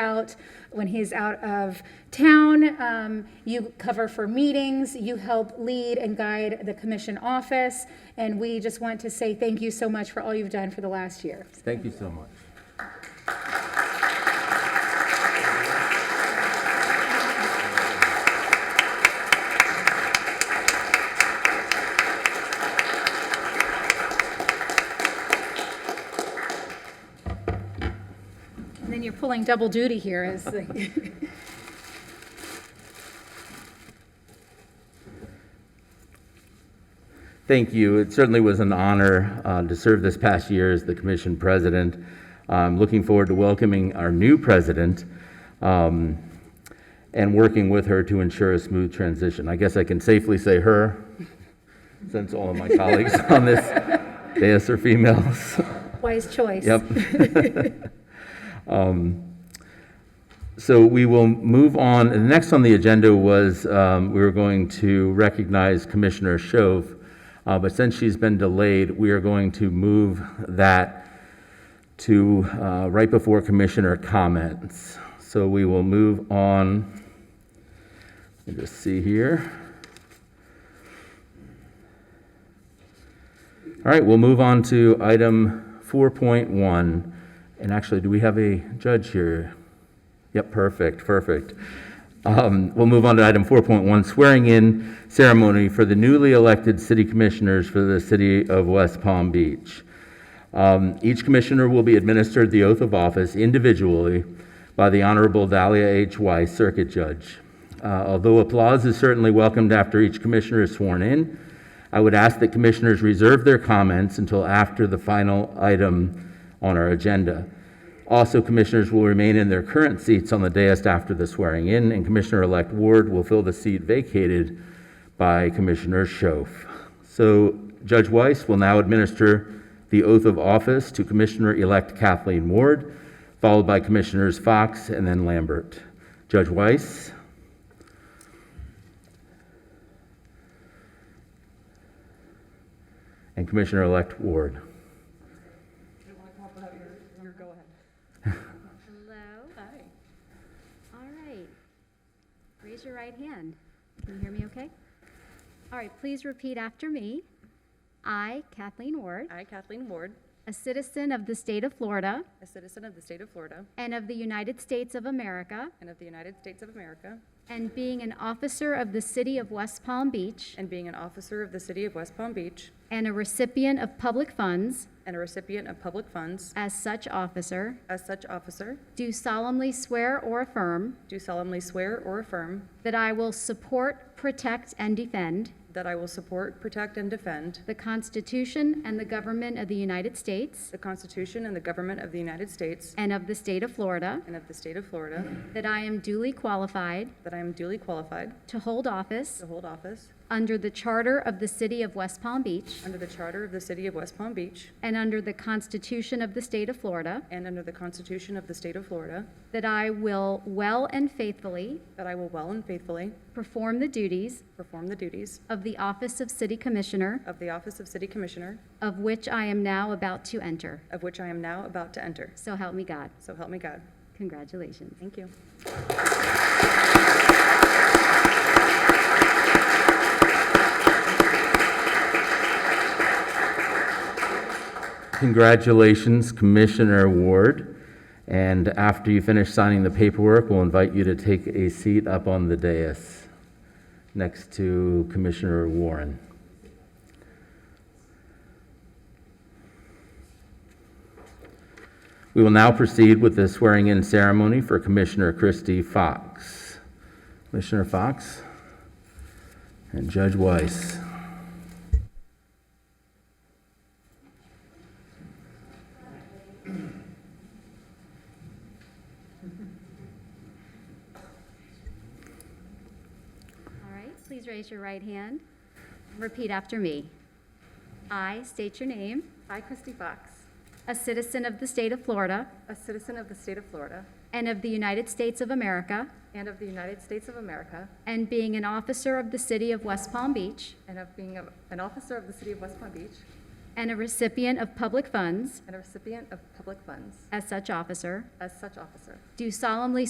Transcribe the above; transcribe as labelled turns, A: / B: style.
A: out, when he's out of town. Um, You cover for meetings, you help lead and guide the commission office, and we just want to say thank you so much for all you've done for the last year.
B: Thank you so much.
A: And then you're pulling double duty here as the.
B: Thank you. It certainly was an honor uh, to serve this past year as the commission president. I'm looking forward to welcoming our new president um, and working with her to ensure a smooth transition. I guess I can safely say her, since all of my colleagues on this dais are females.
A: Wise choice.
B: Yep. Um, So we will move on. The next on the agenda was, um, we were going to recognize Commissioner Shove, uh, but since she's been delayed, we are going to move that to uh, right before Commissioner comments. So we will move on. Let me just see here. All right, we'll move on to item 4.1. And actually, do we have a judge here? Yep, perfect, perfect. Um, We'll move on to item 4.1, swearing in ceremony for the newly elected city commissioners for the city of West Palm Beach. Um, Each commissioner will be administered the oath of office individually by the Honorable Dahlia H. Weiss, Circuit Judge. Uh, Although applause is certainly welcomed after each commissioner is sworn in, I would ask that commissioners reserve their comments until after the final item on our agenda. Also, commissioners will remain in their current seats on the dais after the swearing-in, and Commissioner-elect Ward will fill the seat vacated by Commissioner Schoaf. So Judge Weiss will now administer the oath of office to Commissioner-elect Kathleen Ward, followed by Commissioners Fox and then Lambert. Judge Weiss? And Commissioner-elect Ward.
C: Hello. Hi. All right. Raise your right hand. Can you hear me okay? All right, please repeat after me. I, Kathleen Ward,
D: I, Kathleen Ward,
C: a citizen of the state of Florida
D: a citizen of the state of Florida
C: and of the United States of America,
D: and of the United States of America,
C: and being an officer of the city of West Palm Beach
D: and being an officer of the city of West Palm Beach
C: and a recipient of public funds
D: and a recipient of public funds,
C: as such officer,
D: as such officer,
C: do solemnly swear or affirm
D: do solemnly swear or affirm
C: that I will support, protect, and defend
D: that I will support, protect, and defend
C: the Constitution and the government of the United States.
D: the Constitution and the government of the United States
C: and of the state of Florida,
D: and of the state of Florida,
C: that I am duly qualified
D: that I am duly qualified
C: to hold office
D: to hold office
C: under the charter of the city of West Palm Beach
D: under the charter of the city of West Palm Beach
C: and under the Constitution of the state of Florida,
D: and under the Constitution of the state of Florida,
C: that I will well and faithfully
D: that I will well and faithfully
C: perform the duties
D: perform the duties
C: of the office of city commissioner,
D: of the office of city commissioner,
C: of which I am now about to enter.
D: of which I am now about to enter.
C: So help me God.
D: So help me God.
C: Congratulations.
D: Thank you.
B: Congratulations, Commissioner Ward. And after you finish signing the paperwork, we'll invite you to take a seat up on the dais next to Commissioner Warren. We will now proceed with the swearing-in ceremony for Commissioner Christy Fox. Commissioner Fox and Judge Weiss.
C: All right, please raise your right hand. Repeat after me. I state your name,
D: I, Christy Fox,
C: a citizen of the state of Florida
D: a citizen of the state of Florida
C: and of the United States of America,
D: and of the United States of America,
C: and being an officer of the city of West Palm Beach
D: and of being a- an officer of the city of West Palm Beach,
C: and a recipient of public funds
E: and a recipient of public funds
C: as such officer,
E: as such officer.
C: do solemnly